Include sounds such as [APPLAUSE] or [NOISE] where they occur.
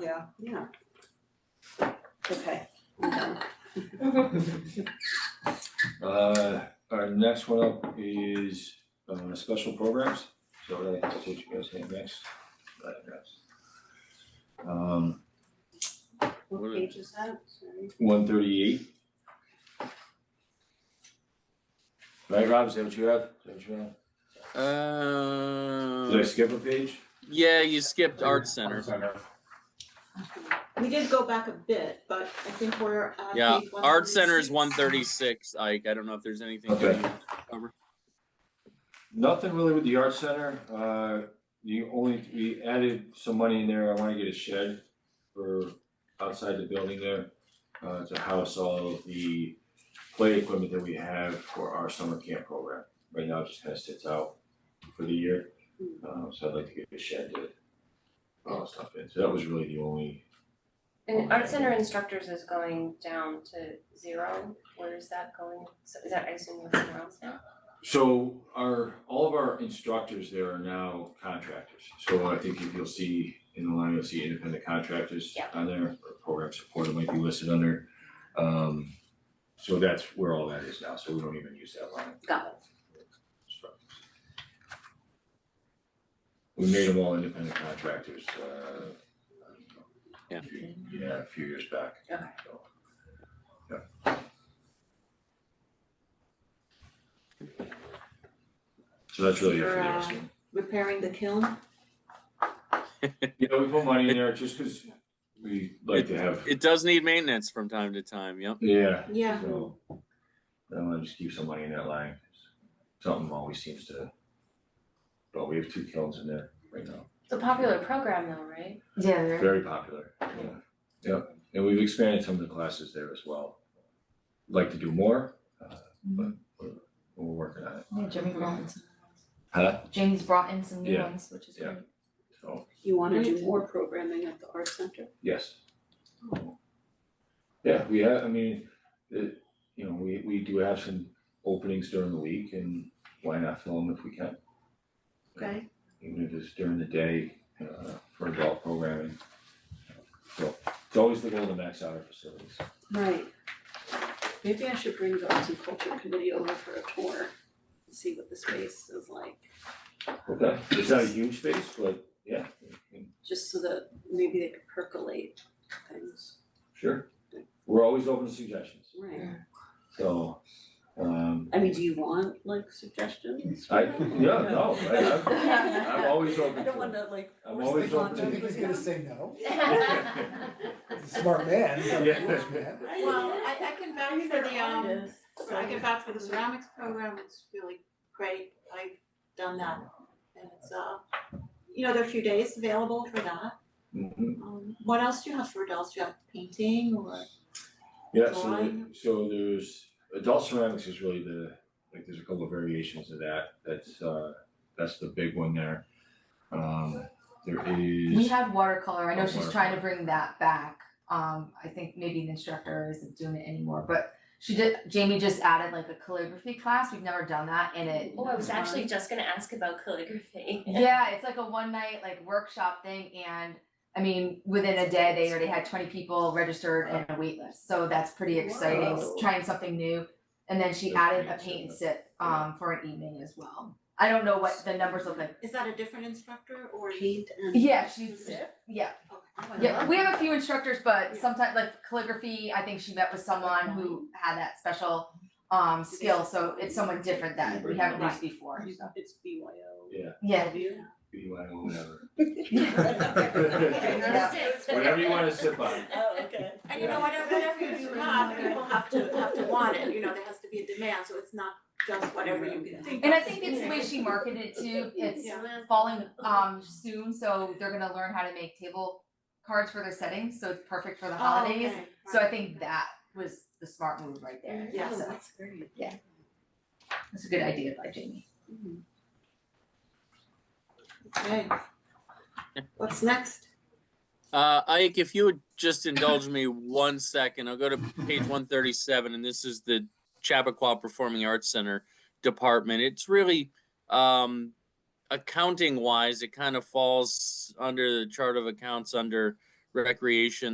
yeah, yeah. Okay, I'm done. Uh, our next one up is, uh, special programs, so I have to teach you guys hand next. diagrams. Um, what What page is that? Sorry. one thirty-eight. Right, Rob, is that what you have? Is that what you have? Did I Uh, skip a page? yeah, you skipped Art Center. We did go back a bit, but I think we're at page Yeah, Art Center 136. is one thirty-six, Ike. I don't know if there's anything. Okay. that you- Nothing really with the art center, uh, the only, we added some money in there, I wanna get a shed for outside the building there. Uh, to house all of the play equipment that we have for our summer camp program, right now it just kinda sits out for the year. Um, so I'd like to get a shed to put all that stuff in, so that was really the only, And art center instructors is going down to zero, where is that going, so is that, I assume that's somewhere else now? so our, all of our instructors there are now contractors. So I think if you'll see in the line, you'll see independent contractors Yeah. on there, or program support might be listed under. Um, so that's where all that is now, so we don't even use that line. Got it. Instructors. We made them all independent contractors, uh. Yeah. Yeah, a few years back. Okay. So, So that's really it for the rest uh, of them. Repairing the kiln, Yeah, we put money in there just because we like to have, It does need maintenance from time to time. Yep. yeah, yeah, so. I wanna just keep some money in that line, 'cause something always seems to, but we have two kilns in there right now, It's a popular program though, [LAUGHS] right? Yeah. very popular, yeah. Yeah, and we've expanded some of the classes there as well. Like to do more, uh, but we're, we're working on it, Yeah, Jimmy brought in some. Huh? James brought in some new Yeah. ones, which is Yeah. great. so, you wanna do Right. more programming at the art center? yes. Yeah, we have, I mean, it, you know, we, we do have some openings during the week and why not fill them if we can? Okay, even if it's during the day, uh, for adult programming. So, it's always the goal to max out our facilities. right. Maybe I should bring the arts and culture committee over for a tour, and see what the space is like, Okay. It's not a huge space, but yeah, just so that maybe they could percolate things. sure. We're always open to suggestions, Right, so, um, I mean, do you want like suggestions? I, yeah, no, I, I'm, [LAUGHS] I'm always open to. I don't wanna like. I'm force always them open on to- them. I think he's gonna say no. He's a Yeah. smart man, he's not a Yeah. foolish man. Well, I I can vouch for the um, I can vouch for the ceramics program, it's really great, I've done that. And it's uh, you know, there are a few days available for that. Mhm. Um, what else do you have for adults? Do you have painting or? Yeah, so, the- Drawing. so there's, adult ceramics is really the, like, there's a couple of variations of that, that's, uh, that's the big one there. Um, there is. We had watercolor, I know Oh, she's trying to bring that back, um, I think maybe the instructor isn't doing it anymore, but she did, Jamie just added like a calligraphy class, we've never done that, and it Oh, I was actually just gonna ask about calligraphy. Yeah, it's like a one night like workshop thing and I mean, within a day, they already had twenty people registered and a waitlist, so that's pretty exciting, Wow. trying something new. And then she Yeah, added a paint paint and sip. sip um for an evening as well. I don't know what the numbers look like. Is that a different instructor or? Paint and. Yeah, she's, yeah, Okay. yeah, we have a few instructors, but Uh-huh. Yeah. sometimes like calligraphy, I think she met with someone who had that special um skill, so it's someone different that we haven't used before, so. It's BYO. Yeah. Yeah, BYO, whatever. Yeah. [LAUGHS] Whatever you wanna sip [LAUGHS] on. Oh, okay. And you know, whatever, whatever you do have, people have to, have to want it, you know, there has to be a demand, so it's not just whatever you can think of. and I think it's the way she marketed [LAUGHS] it too, it's falling um soon, so they're gonna learn how to make table cards for their settings, so it's perfect for the holidays. Oh, okay. So I think that was the smart move right there. Yeah, So that's great. that's a good idea by Jamie. Okay. What's next? Uh, Ike, if you would just indulge me one second, I'll go to page one thirty-seven, and this is the Chappaqua Performing Arts Center department. It's really, um, accounting-wise, it kind of falls under the chart of accounts under recreation